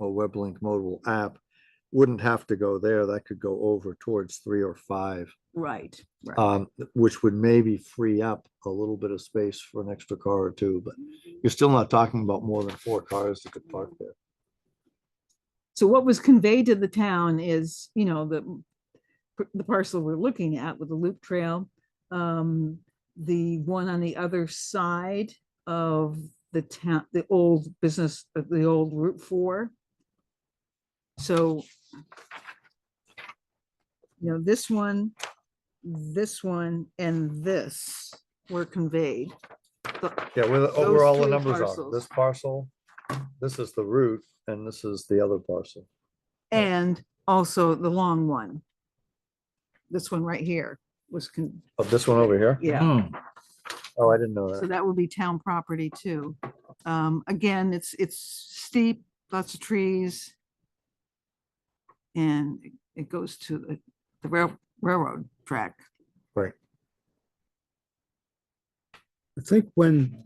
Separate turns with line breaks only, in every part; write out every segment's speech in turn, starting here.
or WebLink mobile app wouldn't have to go there. That could go over towards three or five,
Right, right.
um, which would maybe free up a little bit of space for an extra car or two, but you're still not talking about more than four cars that could park there.
So what was conveyed to the town is, you know, the, the parcel we're looking at with the loop trail. Um, the one on the other side of the town, the old business, uh, the old Route Four. So you know, this one, this one, and this were conveyed.
Yeah, where, the-
Those
where all the
three
numbers are,
parcels.
this parcel, this is the route, and this is the other parcel. Right.
And also the long one. This one right here was con,
Of Oh, this one over here?
yeah,
Oh, I didn't know
so
that.
that will be town property too. Um, again, it's, it's steep, lots of trees. And it- it goes to the, the rail, railroad track.
I think when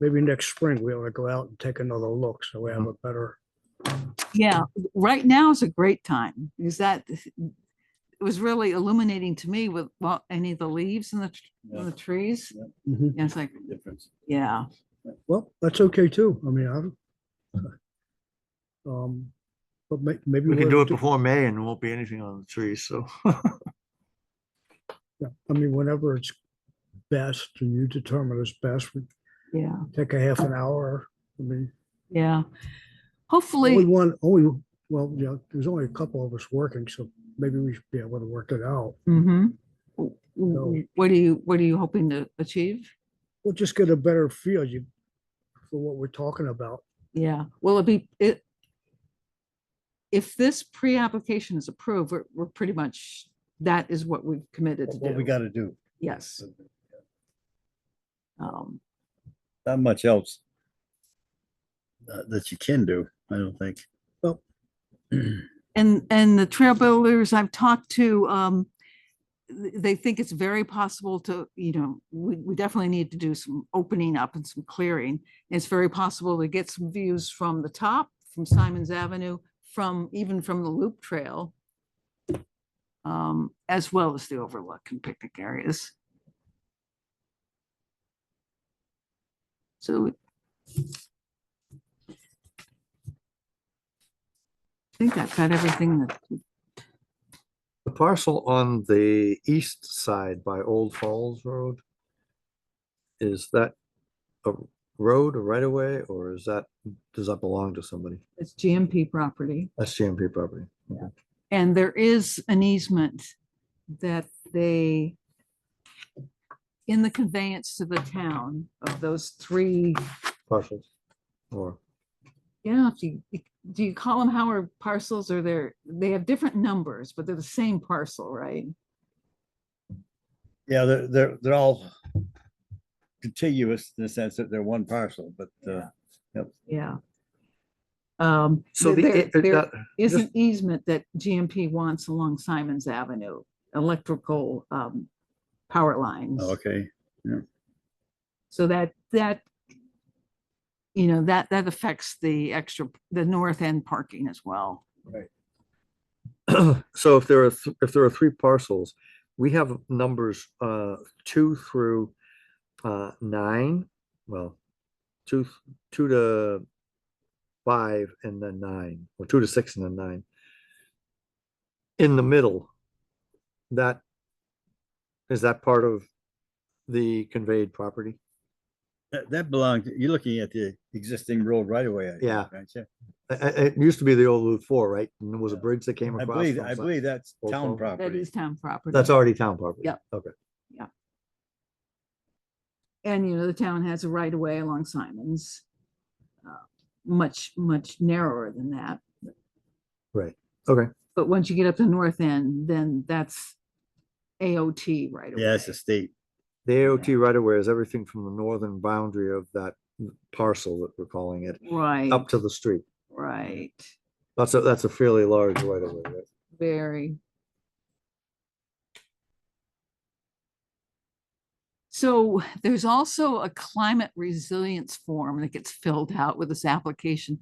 maybe next spring, we ought to go out and take another look, so we have
Uh-huh.
a better,
Yeah, right now is a great time, because that, it was really illuminating to me with, well, any of the leaves and the, tr-
Yeah.
and the trees.
Mm-hmm.
Mhm.
And it's like,
difference.
yeah,
well, that's okay too, I mean, I don't. Um, but may, maybe.
We can
we'll
do it
do-
before May and there won't be anything on the trees, so.
yeah, I mean, whenever it's best, and you determine it's best, we
yeah,
take a half an hour, I mean,
yeah.
only
Hopefully,
one, only, well, yeah, there's only a couple of us working, so maybe we should be able to work it out.
Mm-hmm.
So-
What are you, what are you hoping to achieve?
We'll just get a better feel you, for what we're talking about.
Yeah, will it be, it, if this pre-application is approved, we're, we're pretty much, that is what we've committed to
What we
do.
gotta do,
Yes. Um,
not much else uh, that you can do, I don't think.
And, and the trail builders I've talked to, um, th- they think it's very possible to, you know, we, we definitely need to do some opening up and some clearing. It's very possible to get some views from the top, from Simon's Avenue, from, even from the loop trail. Um, as well as the overlook and picnic areas. So. I think I've got everything that,
The parcel on the east side by Old Falls Road. Is that a road, a right of way, or is that, does that belong to somebody?
it's GMP property.
That's GMP property.
And there is an easement that they, in the conveyance to the town of those three,
Parcels. Or,
yeah, if you, do you call them Howard parcels or they're, they have different numbers, but they're the same parcel, right?
Yeah, they're, they're, they're all contiguous in the sense that they're one parcel, but, uh,
Yeah. Um,
so the,
there-
it- it-
there
that-
is
just-
an easement that GMP wants along Simons Avenue, electrical, um, power lines.
Oh,
okay,
So that, that, you know, that, that affects the extra, the north end parking as well.
so if there are, th- if there are three parcels, we have numbers, uh, two through, uh, nine, well, two, th- two to five and then nine, or two to six and then nine. In the middle, that, is that part of the conveyed property?
that, that belongs, you're looking at the existing road right away. I think,
Yeah.
aren't you?
It, it used to be the old Route Four, right? And there was a
Yeah.
bridge that came
I
across.
believe,
from
I
some-
believe that's
Old
town
Falls.
That
property.
is town property.
That's already town property.
Yep.
Okay,
And, you know, the town has a right of way along Simons. uh, Much, much narrower than that.
okay.
But once you get up to north end, then that's AOT right away.
Yeah, it's the state.
The AOT right away is everything from the northern boundary of that parcel that we're calling it,
Right,
up to the street.
right.
That's a, that's a fairly large right of way, right?
Very. So there's also a climate resilience form that gets filled out with this application.